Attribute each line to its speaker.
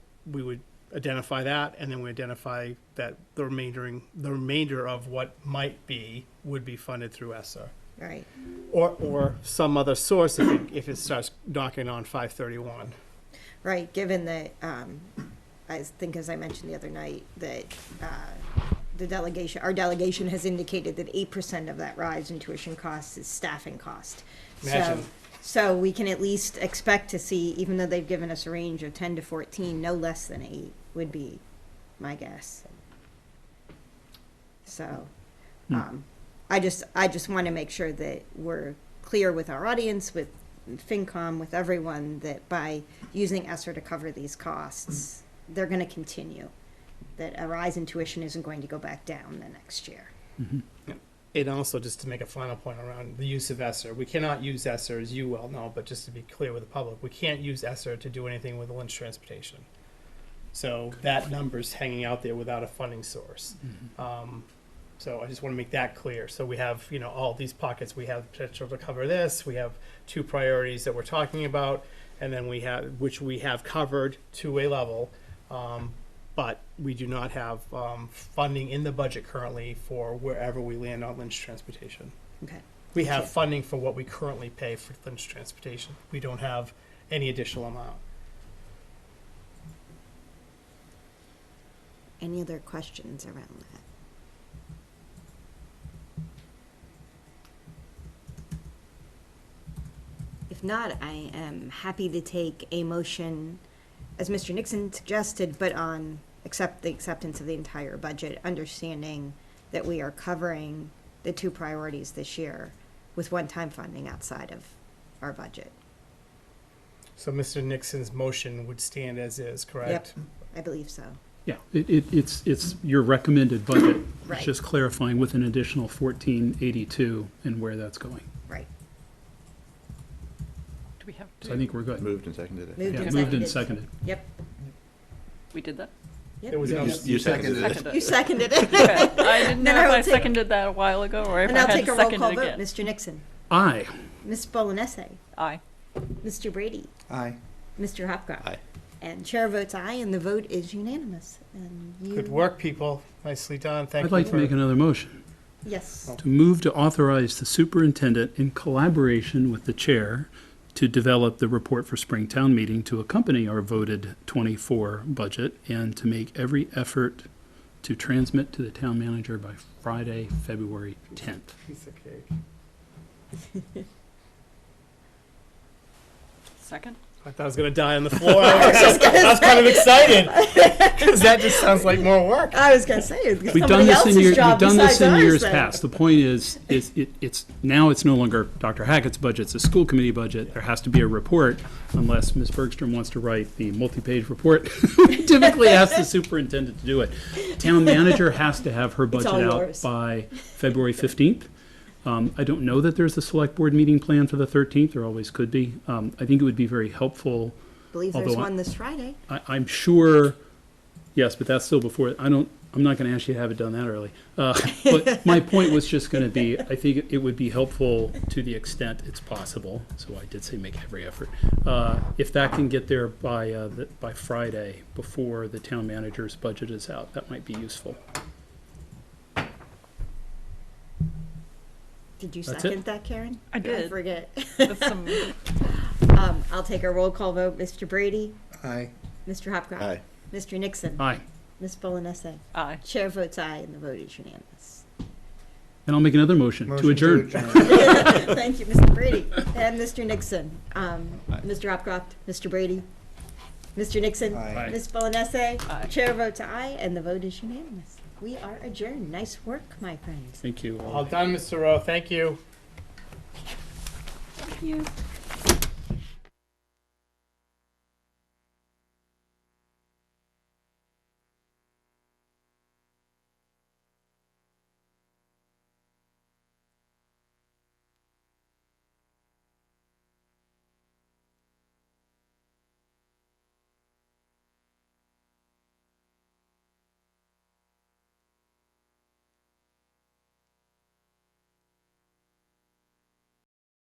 Speaker 1: we would identify that, and then we identify that the remaindering, the remainder of what might be would be funded through ESSER.
Speaker 2: Right.
Speaker 1: Or, or some other source if it, if it starts knocking on five thirty-one.
Speaker 2: Right, given that, um, I think as I mentioned the other night, that, uh, the delegation, our delegation has indicated that eight percent of that rise in tuition costs is staffing cost. So-
Speaker 1: Imagine.
Speaker 2: So we can at least expect to see, even though they've given us a range of ten to fourteen, no less than eight would be my guess. So, um, I just, I just want to make sure that we're clear with our audience, with FinCom, with everyone, that by using ESSER to cover these costs, they're going to continue. That a rise in tuition isn't going to go back down the next year.
Speaker 1: And also, just to make a final point around the use of ESSER, we cannot use ESSER, as you well know, but just to be clear with the public, we can't use ESSER to do anything with Lynch Transportation. So that number's hanging out there without a funding source. Um, so I just want to make that clear. So we have, you know, all these pockets, we have potential to cover this, we have two priorities that we're talking about, and then we have, which we have covered to a level. Um, but we do not have um, funding in the budget currently for wherever we land on Lynch Transportation.
Speaker 2: Okay.
Speaker 1: We have funding for what we currently pay for Lynch Transportation. We don't have any additional amount.
Speaker 2: Any other questions around that? If not, I am happy to take a motion, as Mr. Nixon suggested, but on accept the acceptance of the entire budget, understanding that we are covering the two priorities this year with one-time funding outside of our budget.
Speaker 1: So Mr. Nixon's motion would stand as is, correct?
Speaker 2: I believe so.
Speaker 3: Yeah, it, it, it's, it's your recommended budget.
Speaker 2: Right.
Speaker 3: It's just clarifying with an additional fourteen eighty-two and where that's going.
Speaker 2: Right.
Speaker 4: Do we have to?
Speaker 3: So I think we're good.
Speaker 5: Moved and seconded, I think.
Speaker 2: Moved
Speaker 3: Yeah,
Speaker 2: and
Speaker 3: moved and
Speaker 2: seconded.
Speaker 3: seconded.
Speaker 2: Yep.
Speaker 4: We did that?
Speaker 1: There was no,
Speaker 5: You- You seconded it.
Speaker 4: Seconded
Speaker 2: You
Speaker 4: it.
Speaker 2: seconded it.
Speaker 4: Okay. I didn't know
Speaker 2: Then I
Speaker 4: if
Speaker 2: will
Speaker 4: I
Speaker 2: take-
Speaker 4: seconded that a while ago or if
Speaker 2: And
Speaker 4: I
Speaker 2: I'll
Speaker 4: had
Speaker 2: take a roll
Speaker 4: seconded
Speaker 2: call
Speaker 4: it
Speaker 2: vote.
Speaker 4: again.
Speaker 2: Mr. Nixon,
Speaker 3: Aye,
Speaker 2: Ms. Bolanese,
Speaker 4: Aye.
Speaker 2: Mr. Brady,
Speaker 5: Aye.
Speaker 2: Mr. Hopcroft.
Speaker 5: Aye.
Speaker 2: And chair votes aye, and the vote is unanimous. And you,
Speaker 1: good work, people. Nicely done. Thank
Speaker 3: I'd
Speaker 1: you
Speaker 3: like to
Speaker 1: for.
Speaker 3: make another motion.
Speaker 1: Oh.
Speaker 2: Yes.
Speaker 3: To move to authorize the superintendent in collaboration with the chair to develop the report for Springtown meeting to accompany our voted twenty-four budget and to make every effort to transmit to the town manager by Friday, February tenth.
Speaker 1: Piece of cake.
Speaker 4: Second?
Speaker 1: I thought I was gonna die on the floor. I was, I was kind of excited because that just sounds like more work.
Speaker 2: I was going to say,
Speaker 3: We've done this in years, we've done this in years past. The point is, is it, it's, now it's no longer Dr. Hackett's budget, it's a school committee budget. There has to be a report unless Ms. Bergstrom wants to write the multi-page report. We Typically ask the superintendent to do it. Town manager has to have her budget
Speaker 2: all
Speaker 3: out
Speaker 2: yours.
Speaker 3: by February fifteenth. Um, I don't know that there's a select board meeting planned for the thirteenth, there always could be. Um, I think it would be very helpful
Speaker 2: believe there's
Speaker 3: although I-
Speaker 2: one this Friday.
Speaker 3: I, I'm sure, yes, but that's still before, I don't, I'm not gonna ask you to have it done that early. Uh, But my point was just gonna be, I think it would be helpful to the extent it's possible, so I did say make every effort. Uh, If that can get there by, uh, the- by Friday, before the town manager's budget is out, that might be useful.
Speaker 2: Did you
Speaker 3: That's it.
Speaker 2: second that, Karen?
Speaker 4: I
Speaker 2: I
Speaker 4: did.
Speaker 2: forget.
Speaker 4: With some,
Speaker 2: Um, I'll take a roll call vote. Mr. Brady,
Speaker 1: Aye.
Speaker 2: Mr. Hopcroft,
Speaker 5: Aye.
Speaker 2: Mr. Nixon,
Speaker 3: Aye,
Speaker 2: Ms. Bolanese.
Speaker 4: aye.
Speaker 2: Chair votes aye, and the vote is unanimous.
Speaker 3: and I'll make another motion to adjourn.
Speaker 2: Thank you, Mr. Brady and Mr. Nixon. Um, Mr. Hopcroft, Mr. Brady, Mr. Nixon,
Speaker 3: Aye.
Speaker 2: Ms. Bolanese.
Speaker 4: Aye.
Speaker 2: Chair votes aye, and the vote is unanimous. We are adjourned. Nice work, my friends.
Speaker 3: Thank you all.
Speaker 1: All done, Mr. Rowe. Thank you.
Speaker 4: Thank you.